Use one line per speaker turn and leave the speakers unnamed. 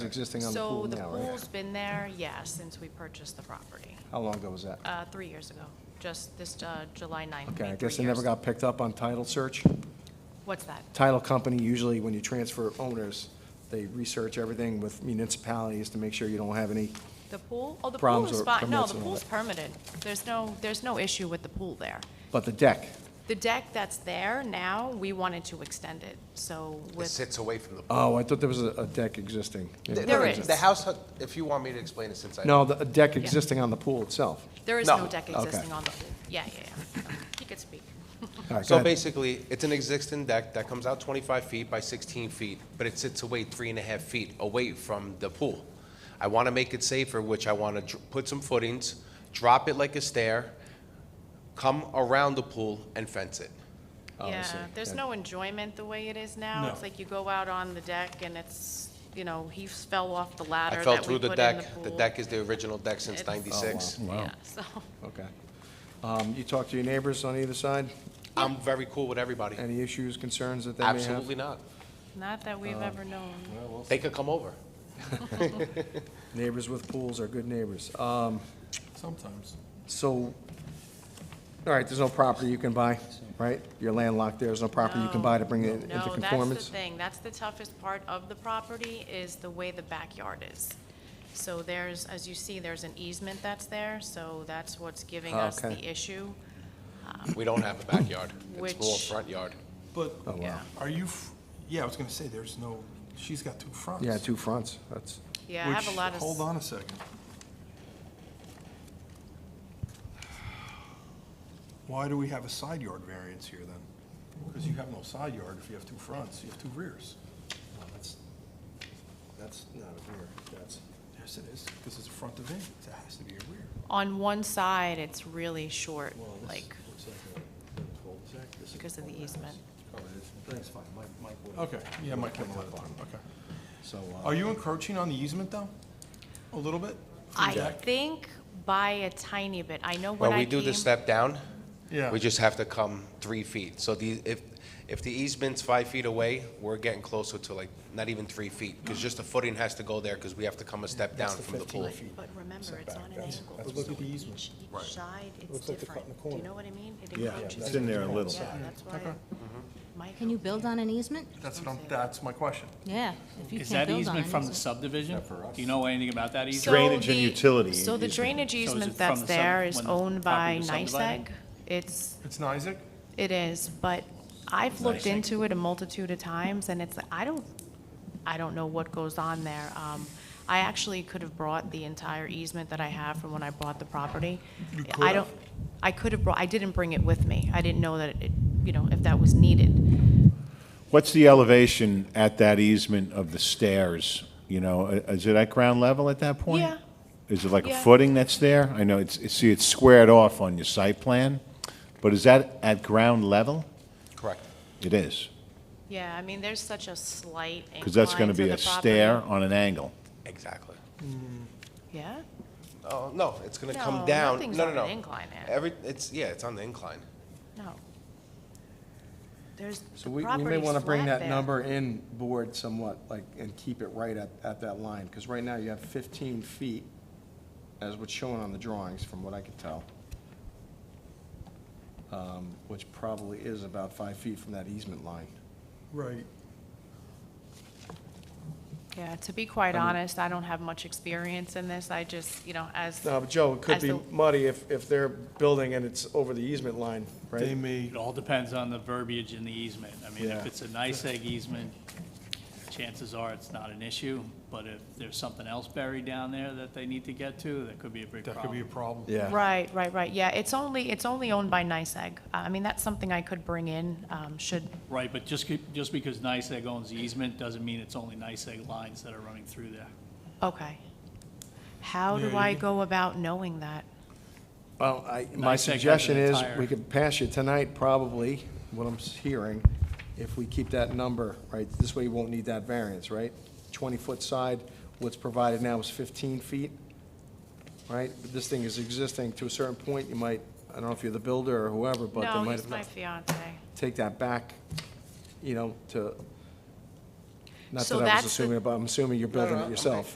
Existing on the
So
pool
the
now, right?
pool's been there, yes, since we purchased the property,
How long ago was that?
uh, three years ago, just this, uh, July 9th.
Okay, I
made
guess
three
it never
years.
got picked up on title search.
What's that?
Title company, usually when you transfer owners, they research everything with municipalities to make sure you don't have any,
The pool? Oh, the pool
Problems
is
or
fine, no,
permits
the
and all
pool's
that.
permitted. There's no, there's no issue with the pool there.
but the deck,
The deck that's there now, we wanted to extend it, so
It
with,
sits away from the pool.
oh, I thought there was a a deck existing. Yeah.
The-
There
the-
is.
The house, if you want me to explain this since I.
No, the a deck existing on the pool itself.
there is
No.
no deck
Okay.
existing on the pool. Yeah, yeah, yeah. He could speak.
All right, go
So
ahead.
basically, it's an existing deck that comes out 25 feet by 16 feet, but it sits away three and a half feet away from the pool. I want to make it safer, which I want to put some footings, drop it like a stair, come around the pool and fence it.
Yeah,
Obviously,
there's
yeah.
no enjoyment the way it is now. It's like you go out on the deck and it's, you know, he fell off the ladder
I
that
fell
we
through the
put in
deck. The
pool.
deck is the original deck since
It's- Oh, wow.
96.
Yeah, so,
Okay. Um, You talk to your neighbors on either side?
I'm very cool with everybody.
Any issues, concerns that they may have?
Absolutely not.
not that we've ever known.
They could come over.
Neighbors with pools are good neighbors. Um,
Sometimes.
So, all right, there's no property you can buy, right? You're landlocked there, there's no property you can buy to bring it into
No, that's
conformance?
the thing, that's the toughest part of the property, is the way the backyard is. So there's, as you see, there's an easement that's there, so that's what's giving us
Ah, Okay.
the issue,
We don't have a backyard. It's more
Which-
front yard.
But
Oh, wow.
yeah.
are you, f- yeah, I was gonna say, there's no, she's got two fronts.
Yeah, two fronts, that's,
Yeah, I have
which-
a lot of.
Hold on a second. Why do we have a side yard variance here then? Because you have no side yard if you have two fronts, you have two rears. No, That's, that's not a rear, that's. Yes, it is, because it's a front of it, it has to be a rear.
On one side, it's really short,
Well, this
like,
looks like a cul-de-sac. This is
because of the
cul-de-sac.
easement.
That's fine, Mike, Mike will. Okay, yeah, Mike will, okay.
so, uh,
Are you encroaching on the easement though? A little bit? From
I
Jack?
think by a tiny bit, I know when
When
I
we
came.
do the step down,
Yeah.
we just have to come three feet. So the, if, if the easement's five feet away, we're getting closer to like, not even three feet, because just the footing has to go there, because we have to come a step down
That's
from the
15
pool.
feet.
But remember, it's
Setback,
on an
that's-
angle.
that's what's
So
at the easement.
Each,
Right.
each side, it's
Looks like they cut in the
different. Do you
corner.
know what I mean? It
Yeah,
encroaches.
it's in there a little.
Yeah, that's why. Mike-
Can you build on an easement?
That's what I'm, that's my question.
Yeah, if you
Is
can't
that
build on an
easement from the
easement.
subdivision? Do you know anything about that
So
easement?
Drainage and
the-
utility
So the
easement.
drainage
it
easement
from
that's
the sub-
there is
when the
owned by
property was
NISEG.
subdivided?
It's,
It's not Isaac?
it is, but I've looked into it a multitude of times, and it's, I don't, I don't know what goes on there. Um, I actually could have brought the entire easement that I have from when I bought the property.
You could
I
have.
don't, I could have brought, I didn't bring it with me. I didn't know that it, you know, if that was needed.
What's the elevation at that easement of the stairs? You know, i- is it at ground level at that point?
Yeah.
Is it like a
Yeah.
footing that's there? I know it's, it's- see, it's squared off on your site plan, but is that at ground level?
Correct.
It is,
Yeah, I mean, there's such a slight incline
because that's going to be
the
a
property.
stair on an angle.
Exactly.
Yeah?
Oh, no, it's gonna come
No,
down.
nothing's
No,
on
no,
an
no.
incline, Ed.
Every, it's, yeah, it's on the incline.
No. There's,
so
the
we we may
property's
want to bring
flat
that
there.
number in board somewhat, like, and keep it right at, at that line, because right now you have 15 feet, as what's shown on the drawings, from what I could tell, um, which probably is about five feet from that easement line.
Right.
Yeah, to be quite honest, I don't have much experience in this. I just, you know, as.
No, Uh, but Joe, it could
as
be
the-
muddy if, if they're building and it's over the easement line,
They
right?
may,
It all depends on the verbiage in the easement. I mean,
Yeah.
if it's a NICEAG easement, chances are it's not an issue, but if there's something else buried down there that they need to get to, that could be a big
that could be a
problem.
problem.
Right, right, right. Yeah, it's only, it's only owned by NICEAG. I mean, that's something I could bring in, um, should,
Right, but just, keep- just because NICEAG owns the easement doesn't mean it's only NICEAG lines that are running through there.
okay. How
Yeah,
do
you
I
can-
go about knowing that?
Well, I, my
Nice egg
suggestion
has an
is, we
entire-
could pass you tonight, probably, what I'm s- hearing, if we keep that number, right? This way you won't need that variance, right? Twenty-foot side, what's provided now is fifteen feet, right? But This thing is existing to a certain point, you might, I don't know if you're the builder or whoever, but they
No,
might
he's my
have,
fiance.
take that back, you know, to Not
So
that I was
that's the-
assuming, but I'm assuming you're building
no,
it
I'm-
yourself.